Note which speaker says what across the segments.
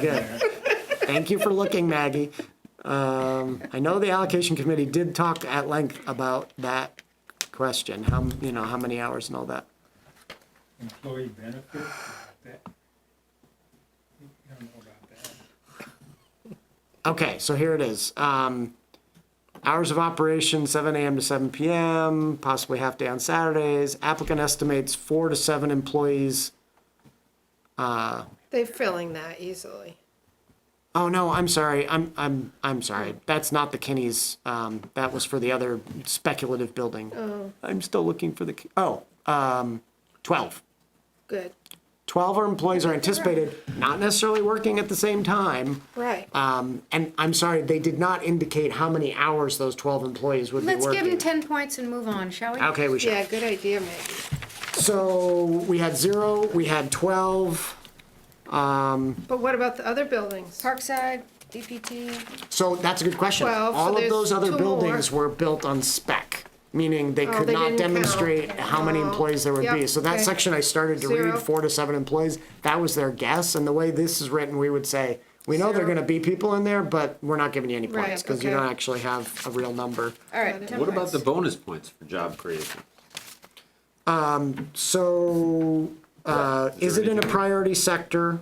Speaker 1: Good. Thank you for looking, Maggie. Um, I know the allocation committee did talk at length about that question, how, m- you know, how many hours and all that.
Speaker 2: employee benefits, that, I don't know about that.
Speaker 1: Okay, so here it is. Um, hours of operation, seven AM to seven PM, possibly half day on Saturdays. Applicant estimates four to seven employees.
Speaker 3: They're filling that easily.
Speaker 1: Oh, no, I'm sorry. I'm, I'm, I'm sorry. That's not the Kinney's. Um, that was for the other speculative building. I'm still looking for the, Ki- oh, um, twelve.
Speaker 3: Good.
Speaker 1: 12 our employees are anticipated not necessarily working at the same time.
Speaker 3: Right.
Speaker 1: Um, and I'm sorry, they did not indicate how many hours those 12 employees would
Speaker 4: Let's
Speaker 1: be
Speaker 4: give
Speaker 1: working.
Speaker 4: him ten points and move on, shall we?
Speaker 1: Okay, we should.
Speaker 3: Yeah, good idea, Maggie.
Speaker 1: So we had zero, we had 12.
Speaker 3: But what about the other buildings?
Speaker 4: Parkside, DPT,
Speaker 1: So that's a good question.
Speaker 3: Well, so
Speaker 1: All of
Speaker 3: there's
Speaker 1: those other
Speaker 3: two Oh,
Speaker 1: buildings were built on spec, meaning they could
Speaker 3: they
Speaker 1: not
Speaker 3: didn't count.
Speaker 1: demonstrate how many
Speaker 3: Oh,
Speaker 1: employees there would be.
Speaker 3: yep,
Speaker 1: So that
Speaker 3: okay.
Speaker 1: section I started to read,
Speaker 3: Zero.
Speaker 1: four to seven employees, that was their guess. And the way this is written, we would say, we know there are
Speaker 3: Zero.
Speaker 1: gonna be people in there, but we're not giving you any
Speaker 3: Right,
Speaker 1: points because you
Speaker 3: okay.
Speaker 1: don't actually have a real number.
Speaker 4: all right, ten
Speaker 5: What about
Speaker 4: points.
Speaker 5: the bonus points for job creation?
Speaker 1: So, uh,
Speaker 5: Is
Speaker 1: is it
Speaker 5: there
Speaker 1: in a
Speaker 5: anything-
Speaker 1: priority sector?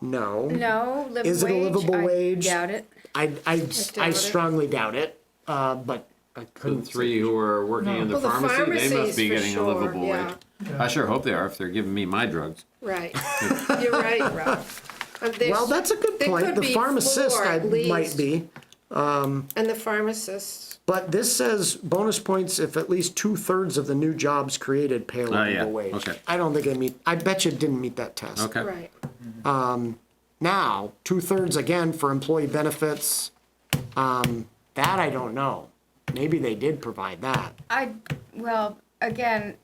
Speaker 1: No.
Speaker 4: No, livable wage.
Speaker 1: Is it a livable
Speaker 4: I
Speaker 1: wage?
Speaker 4: Doubt it.
Speaker 1: I, I, I
Speaker 3: it.
Speaker 1: strongly doubt it, uh, but I
Speaker 5: The
Speaker 1: couldn't.
Speaker 5: three who are working in the
Speaker 3: Well, the
Speaker 5: pharmacy, they
Speaker 3: pharmacies
Speaker 5: must be
Speaker 3: for
Speaker 5: getting a
Speaker 3: sure,
Speaker 5: livable wage.
Speaker 3: yeah.
Speaker 5: I sure hope they are if they're giving me my drugs.
Speaker 3: Right. You're right, Rob. Uh, there's-
Speaker 1: Well, that's a good
Speaker 3: there
Speaker 1: point.
Speaker 3: could
Speaker 1: The
Speaker 3: be
Speaker 1: pharmacist
Speaker 3: four
Speaker 1: I
Speaker 3: at
Speaker 1: might
Speaker 3: least,
Speaker 1: be.
Speaker 3: And the pharmacist.
Speaker 1: But this says bonus points if at least two thirds of the new jobs created pay a
Speaker 5: Ah, yeah,
Speaker 1: livable wage.
Speaker 5: okay.
Speaker 1: I don't think it meet, I bet you it didn't meet that test.
Speaker 5: Okay.
Speaker 3: Right.
Speaker 1: Now, two thirds again for employee benefits, um, that I don't know. Maybe they did provide that.
Speaker 4: I, well, again,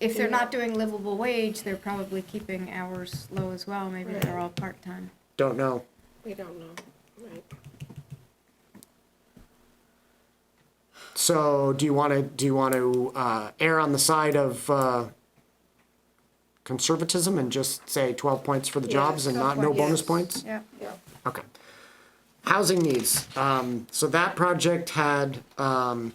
Speaker 4: if they're not doing livable wage, they're probably keeping hours low as well, maybe they're all part-time.
Speaker 1: Don't know.
Speaker 3: We don't know. Right.
Speaker 1: So do you want to, do you want to uh, err on the side of uh, conservatism and just say 12 points for the jobs and not no
Speaker 4: 12
Speaker 1: bonus
Speaker 3: yes.
Speaker 1: points?
Speaker 4: Yeah.
Speaker 3: Yeah.
Speaker 1: Okay. Housing needs. Um, So that project had, um,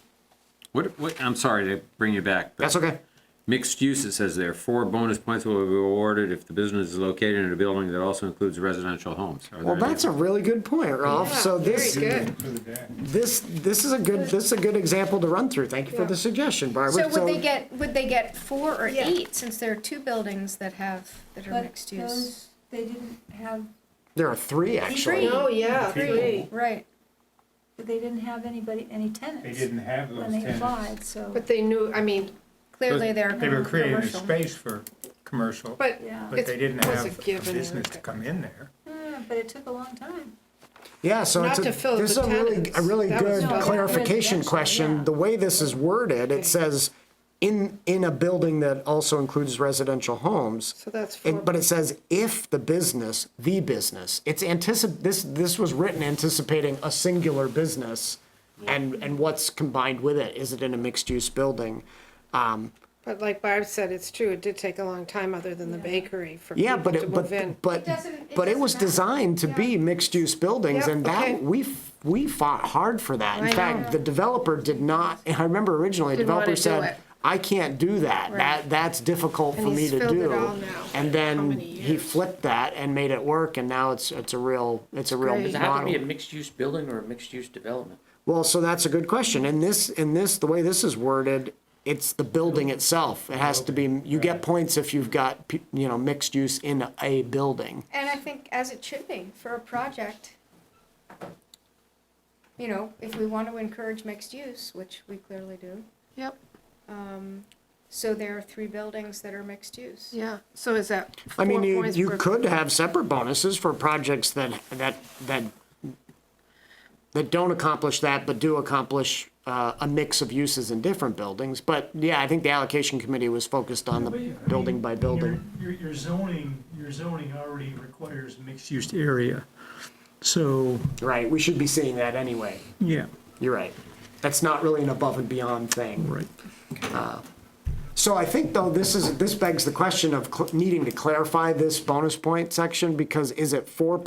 Speaker 5: What, what, I'm sorry to bring you back. but
Speaker 1: that's okay.
Speaker 5: Mixed use, it says there, four bonus points will be awarded if the business is located in a building that also includes residential homes. Are
Speaker 1: Well,
Speaker 5: there any-
Speaker 1: that's a really good point, Ralph.
Speaker 3: Yeah,
Speaker 1: So this,
Speaker 3: Very good.
Speaker 2: For the day.
Speaker 1: this, this is a good, this is a good example to run through. Thank you for
Speaker 3: Yeah.
Speaker 1: the suggestion,
Speaker 4: So
Speaker 1: Barbara.
Speaker 4: would they get, would they get four or
Speaker 3: Yeah.
Speaker 4: eight, since there are two buildings that have, that are
Speaker 6: But
Speaker 4: mixed use?
Speaker 6: those- They didn't have,
Speaker 1: There are three, actually.
Speaker 3: Oh, yeah, three.
Speaker 4: Right,
Speaker 6: but they didn't have anybody, any tenants.
Speaker 2: They didn't have those
Speaker 6: When they
Speaker 2: tenants.
Speaker 6: applied, so,
Speaker 3: But they knew, I mean,
Speaker 4: clearly they're
Speaker 2: They were creating a
Speaker 4: commercial.
Speaker 2: space for commercial,
Speaker 3: but
Speaker 6: yeah,
Speaker 2: but they didn't
Speaker 3: It was a
Speaker 2: have a
Speaker 3: given.
Speaker 2: business to come in there.
Speaker 6: Mm, but it took a long time.
Speaker 1: Yeah, so
Speaker 3: Not
Speaker 1: it's a,
Speaker 3: to fill
Speaker 1: this is
Speaker 3: the
Speaker 1: a really,
Speaker 3: tenants.
Speaker 1: a really
Speaker 3: That was
Speaker 1: good
Speaker 3: all
Speaker 1: clarification
Speaker 6: residential,
Speaker 1: question.
Speaker 6: yeah.
Speaker 1: The way this is worded, it says, in, in a building that also includes residential homes.
Speaker 3: so that's four.
Speaker 1: And, but it says, if the business, the business, it's anticip, this, this was written anticipating a singular business and, and what's combined with it. Is it in a mixed-use building? Um,
Speaker 3: But like Barb said, it's true, it did take a long time, other than the bakery, for
Speaker 1: Yeah,
Speaker 3: people
Speaker 1: but
Speaker 3: to
Speaker 1: it, but,
Speaker 3: move in.
Speaker 1: but,
Speaker 4: doesn't- it
Speaker 1: but it was
Speaker 4: doesn't matter.
Speaker 1: designed to be mixed-use buildings,
Speaker 3: Yeah,
Speaker 1: and
Speaker 3: okay.
Speaker 1: that, we, f- we fought hard for that. In
Speaker 3: I
Speaker 1: fact, the developer did not, I remember originally, the
Speaker 3: Didn't wanna
Speaker 1: developer
Speaker 3: do it.
Speaker 1: said, I can't do that, that, that's difficult
Speaker 3: And
Speaker 1: for me
Speaker 3: he's
Speaker 1: to do.
Speaker 3: filled it all now.
Speaker 1: And
Speaker 3: How
Speaker 1: then
Speaker 3: many
Speaker 1: he
Speaker 3: years?
Speaker 1: flipped that and made it work, and now it's, it's a real, it's a real
Speaker 3: Great.
Speaker 7: Does it have to be a
Speaker 1: model.
Speaker 7: mixed-use building or a mixed-use development?
Speaker 1: Well, so that's a good question, in this, in this, the way this is worded, it's the building itself, it has to be, you get points if you've got, pe- you know, mixed use in a building.
Speaker 4: And I think as it should be for a project. You know, if we want to encourage mixed use, which we clearly do,
Speaker 3: Yep,
Speaker 4: um, so there are three buildings that are mixed use.
Speaker 3: yeah, so is that
Speaker 1: I
Speaker 3: four
Speaker 1: mean, you,
Speaker 3: points
Speaker 1: you
Speaker 3: per-
Speaker 1: could have separate bonuses for projects that, that, that, that don't accomplish that, but do accomplish, uh, a mix of uses in different buildings. But, yeah, I think the allocation committee was focused on the
Speaker 8: But, I mean,
Speaker 1: building by building.
Speaker 8: Your, your- your zoning, your zoning already requires mixed-use area, so,
Speaker 1: Right, we should be seeing that anyway.
Speaker 8: yeah,
Speaker 1: You're right. That's not really an above and beyond thing.
Speaker 8: right.
Speaker 1: So I think though, this is, this begs the question of cl- needing to clarify this bonus point section because is it four